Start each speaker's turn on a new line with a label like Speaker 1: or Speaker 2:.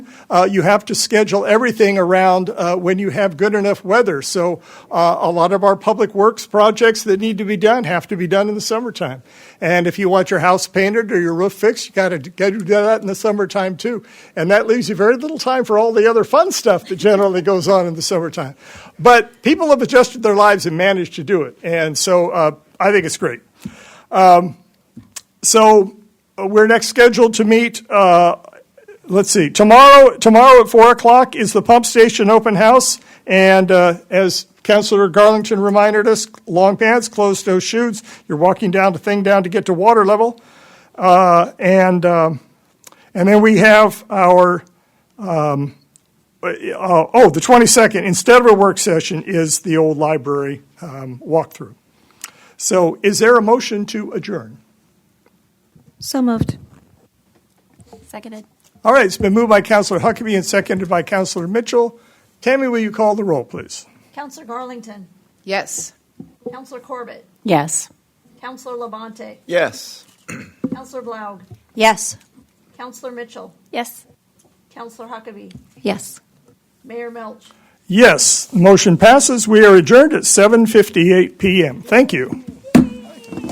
Speaker 1: uh, you have to schedule everything around uh, when you have good enough weather. So uh, a lot of our public works projects that need to be done have to be done in the summertime. And if you want your house painted or your roof fixed, you got to do that in the summertime too. And that leaves you very little time for all the other fun stuff that generally goes on in the summertime. But people have adjusted their lives and managed to do it. And so uh, I think it's great. Um, So uh, we're next scheduled to meet, uh, let's see, tomorrow, tomorrow at 4 o'clock is the pump station open house. And uh, as Councilor Garlington reminded us, long pants, closed toed shoes. You're walking down the thing down to get to water level. Uh, And, um, and then we have our, um, uh, oh, the 22nd, instead of a work session, is the old library um, walkthrough. So is there a motion to adjourn?
Speaker 2: So moved.
Speaker 3: Seconded.
Speaker 1: All right, it's been moved by Counselor Huckabee and seconded by Counselor Mitchell. Tammy, will you call the roll, please?
Speaker 4: Counselor Garlington,
Speaker 5: Yes.
Speaker 4: Counselor Corbett,
Speaker 3: Yes.
Speaker 4: Counselor Labonte,
Speaker 6: Yes.
Speaker 4: Counselor Blaug,
Speaker 2: Yes.
Speaker 4: Counselor Mitchell,
Speaker 3: Yes.
Speaker 4: Counselor Huckabee,
Speaker 3: Yes.
Speaker 4: Mayor Melch.
Speaker 1: Yes, the motion passes. We are adjourned at 7:58 PM. Thank you.